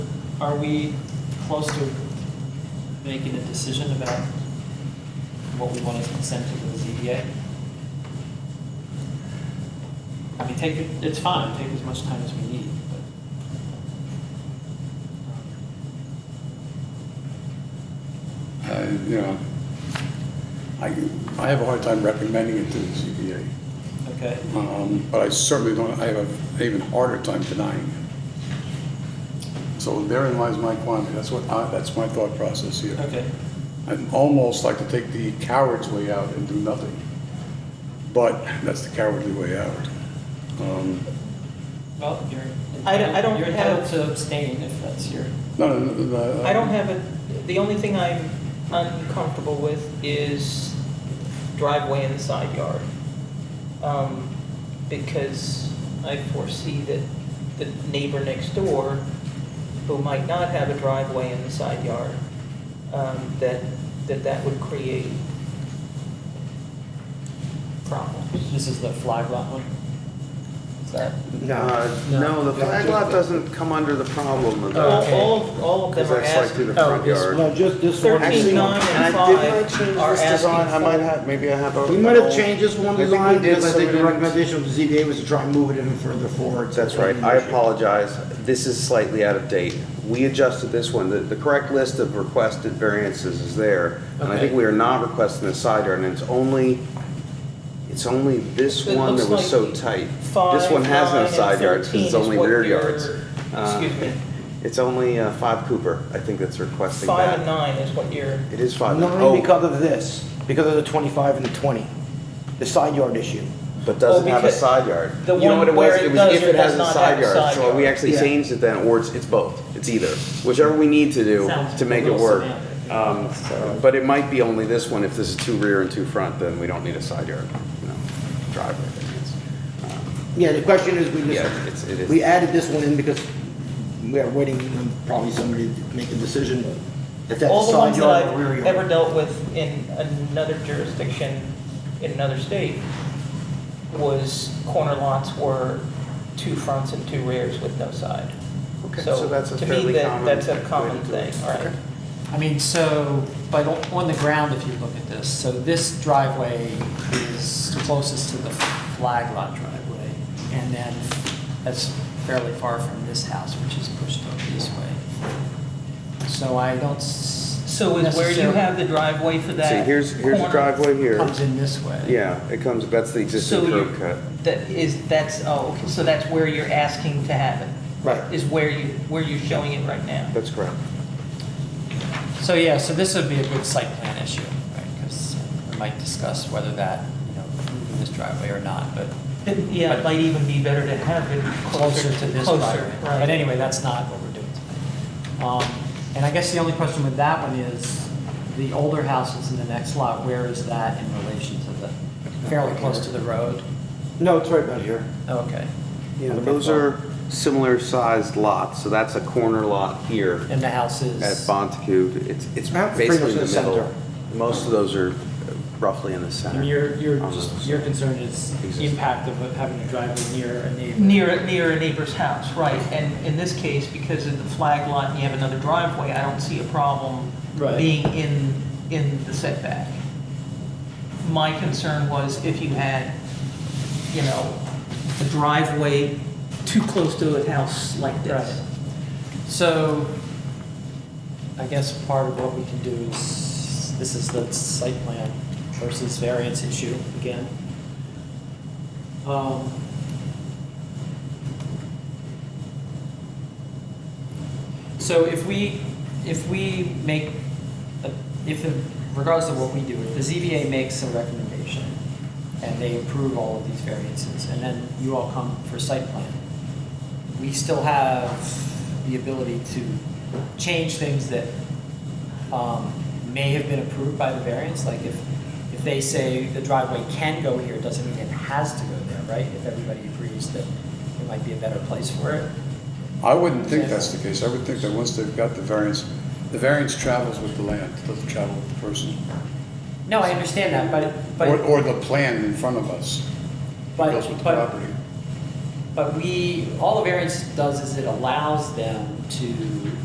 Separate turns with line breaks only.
Are we close to making a decision about what we want to send to the ZBA? I mean, take, it- it's fine, take as much time as we need, but.
I, Uh, you know, I, I have a hard time recommending it to the ZBA.
um, Okay,
Um, But I certainly don't, I have an even harder time denying it. So therein lies my quandary. That's what, I- that's my thought process here.
okay,
I'd almost like to take the coward's way out and do nothing. But that's the cowardly way out. Um,
well, you're.
I don't- I don't
You're entitled
have-
to abstain if that's your,
No, no, no, uh, no.
I don't have it, the only thing I'm uncomfortable with is driveway and side yard. Um, Because I foresee that the neighbor next door, who might not have a driveway in the side yard, um, that, that that would create problems.
this is the flag lot one? Is that?
Uh, No, the flag lot doesn't come under the problem of
All,
that,
Okay.
all, of- all of
because
them are
that's like
asking,
through the
Oh,
front
this-
yard.
No, just this one.
Thirteen, nine, and
Actually,
And I did
five
not change
are
this design, I
asking
might
for-
have, maybe I have a.
We might have changed this one
I think we
design,
did
because I think the
submit it.
recommendation of the ZBA was to try and move it even further forward.
That's right, I apologize, this is slightly out of date. We adjusted this one, the, the correct list of requested variances is there, and I think
Okay.
we are not requesting the side yard, and it's only, it's only this
It
one that
looks
was so
like
tight.
five,
This one has
nine,
no
and
side yards, 'cause
13
it's
is
only
what
rear
you're-
yards. Uh,
Excuse me,
It's only uh, five Cooper, I think that's requesting that.
five and nine is what you're.
It is five. and-
Nine
oh,
because of this, because of the 25 and the 20, the side yard issue.
But doesn't
Well,
have a
oh, because
side yard.
the
You know
one
what it
where
was?
it
It was
does
if
or
it
does
has a
not
side
have a
yard,
side
so we
yard.
actually
Yeah.
changed it then, or it's, it's both. It's either, whichever we need to do
Sounds
to make
a
it
little
work.
semantic.
Um, But it might be only this one, if this is two rear and two front, then we don't need a side yard, you know, driveway. variance. Um,
Yeah, the question is, we
Yeah, it's- it is.
just, we added this one in because we are waiting on probably somebody to make a decision if that's
All
a
the
side
ones that
yard or rear
I've
yard.
ever dealt with in another jurisdiction, in another state, was corner lots were two fronts and two rears with no side.
Okay, so that's a
To me,
fairly
that,
common
that's
way
a
to
common
do it.
thing, all right.
Okay.
I mean, so, but on the ground, if you look at this, so this driveway is closest to the flag lot driveway, and then that's fairly far from this house, which is pushed up this way. So I don't s-
So is where you
necessarily-
have the driveway for that
See, here's, here's the
corner,
driveway here.
Comes in this way.
Yeah, it comes, that's the
So
existing
you-
curb cut.
That is, that's, oh, okay, so that's where you're asking to have it,
Right.
is where you, where you're showing it right now.
That's correct.
So, yeah, so this would be a good site plan issue, right? Because we might discuss whether that, you know, moving this driveway or not, but
It- Yeah, it might even be better to have it
closer to this
closer,
driveway.
right.
But anyway, that's not what we're doing today. Um, And I guess the only question with that one is, the older house that's in the next lot, where is that in relation to the, fairly close to the road?
No, it's right about here.
Okay.
Yeah, those are similar sized lots, so that's a corner lot here.
And the house is?
at Bontecude, it's, it's
That's pretty
basically
much
the
the center.
middle. Most of those are roughly in the
I
center.
mean, your, your,
Um,
just- your concern is the impact of having a driveway near a neighbor?
Near, near a neighbor's house, right, and in this case, because of the flag lot and you have another driveway, I don't see a problem
Right.
being in, in the setback. My concern was if you had, you know, a driveway too close to a house like this.
So, I guess part of what we can do is, this is the site plan versus variance issue again. Um, So if we, if we make, a- if, the- regardless of what we do, if the ZBA makes a recommendation and they approve all of these variances, and then you all come for site plan, we still have the ability to change things that um, may have been approved by the variance, like if, if they say the driveway can go here, it doesn't mean it has to go there, right? If everybody agrees that it might be a better place for it.
I wouldn't think that's the case. I would think that once they've got the variance, the variance travels with the land, it doesn't travel with the person.
No, I understand that, but,
Or,
but,
or the plan in front of us goes
but,
with the
but
property.
But we, all the variance does is it allows them to